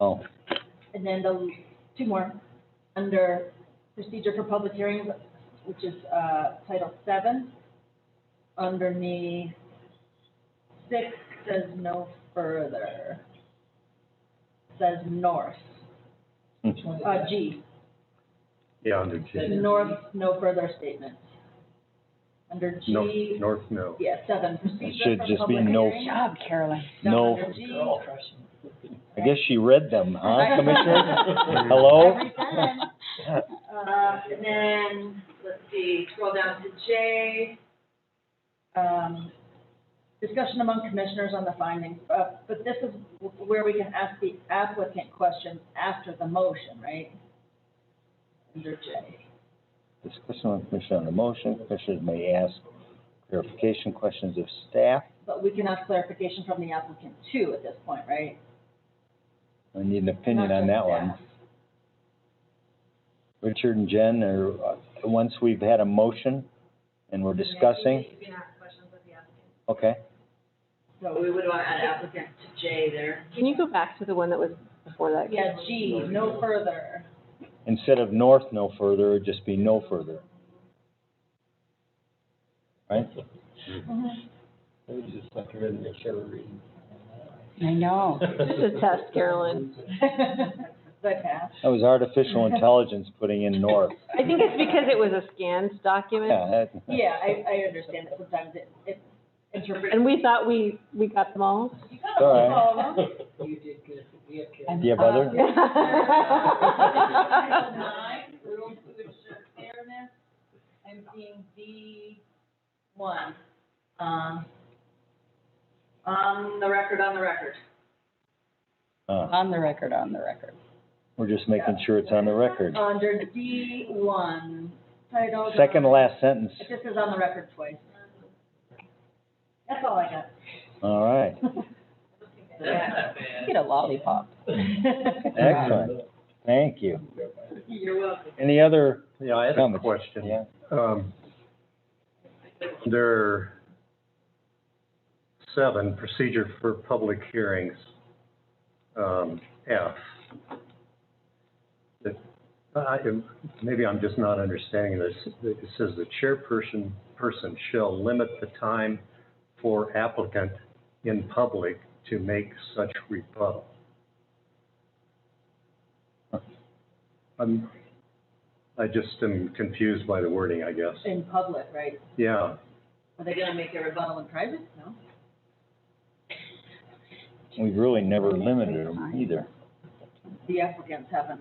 Oh, And then the, two more, under procedure for public hearings, which is, uh, title seven. Underneath six says no further. Says north, Which one is uh, that? G, Yeah, under G. north, no further statement. Under North, G, north, no. yeah, seven, It procedure should for just be public no- hearing. job, Carolyn. Down No. under G. Girl, crushing. I guess she read them, huh, Commissioner? Hello? Every time. Uh, and then, let's see, scroll down to J. Um, discussion among commissioners on the findings, uh, but this is where we can ask the applicant questions after the motion, right? Under J. Discussion with Commissioner on the motion, Commissioners may ask clarification questions of staff. But we can ask clarification from the applicant too at this point, right? I need an opinion Not on just that one. staff. Richard and Jen, or, uh, once we've had a motion and we're discussing, You can ask questions of the applicant. okay? So we would want to add applicant to J there. Can you go back to the one that was before that? Yeah, G, no further. Instead of north no further, it'd just be no further. Right? It was just like a rhythm, they should reading. I know. This is a test, Carolyn. The pass. That was artificial intelligence putting in north. I think it's because it was a scanned document, Yeah, that- Yeah, I, I understand that sometimes it, it interprets. and we thought we, we got them all. all right. You did good, we have kids. Do you have Uh, Um, other? Title nine, rules to ensure fairness, I'm seeing D one, um, on the record, on the record. Uh, On the record, on the record. We're just making sure it's on the record. Under D one, title. Second to last sentence. It just is on the record twice. That's all I got. All right. Get a lollipop. Excellent. Thank you. You're welcome. Any other? Yeah, I had a comments? question. Yeah. Um, There, seven, procedure for public hearings, um, F. That- I, maybe I'm just not understanding this. It says the chairperson, person shall limit the time for applicant in public to make such rebuttal. I'm, I just am confused by the wording, I guess. In public, right? Yeah, Are they gonna make a rebuttal in private? No? We've really never limited them either. The applicants haven't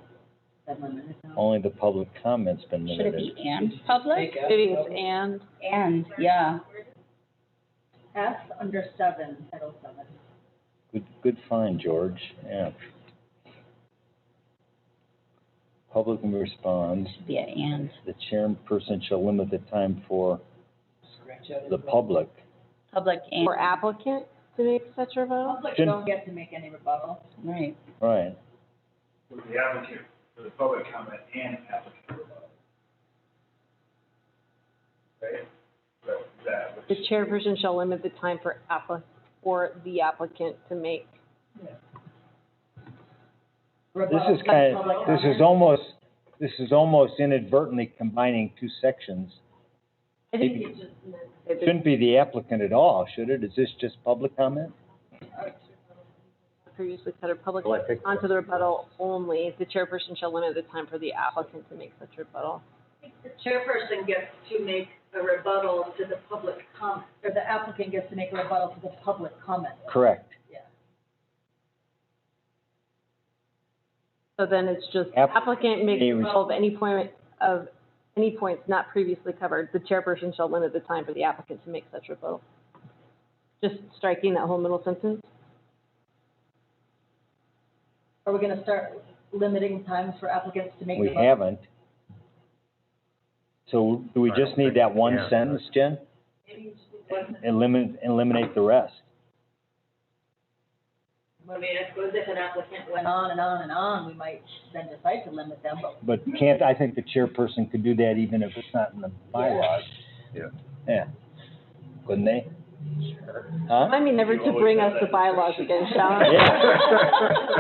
been limited, no. Only the public comment's been Should it be limited. and public? Maybe it's and, And, yeah. F under seven, title seven. Good, good find, George. Yeah. Public responds, Should be an and. the chairperson shall limit the time for Scratch out the his- public. Public and. or applicant to make such a vote? Public Jen- don't get to make any rebuttal. Right. Right. with the applicant, for the public comment and applicant rebuttal. Right? So that The was. chairperson shall limit the time for appli, for the applicant to make. This rebuttal is kind public of, this is comment. almost, this is almost inadvertently combining two sections. I think it just meant that Shouldn't be the applicant at all, should it? Is this just public comment? the previously said a public well, I think. onto the rebuttal only. The chairperson shall limit the time for the applicant to make such rebuttal. The chairperson gets to make a rebuttal to the public comment, or the applicant gets to make a rebuttal to the public comment. Correct. So then it's just App- applicant makes Any- rebuttal of any point of, any points not previously covered. The chairperson shall limit the time for the applicant to make such rebuttal. Just striking that whole middle sentence. Are we gonna start limiting times for applicants to make? We rebuttals? haven't. So do we I just don't need think that we one can. sentence, Jen? Eliminate, eliminate the rest. I mean, I suppose if an applicant went on and on and on, we might then decide to limit them, but But can't, I think the chairperson could do that even if it's not in the bylaws. Yeah. Yeah. Couldn't they? Huh? Remind me never to bring us the bylaws again, shall I? Yeah.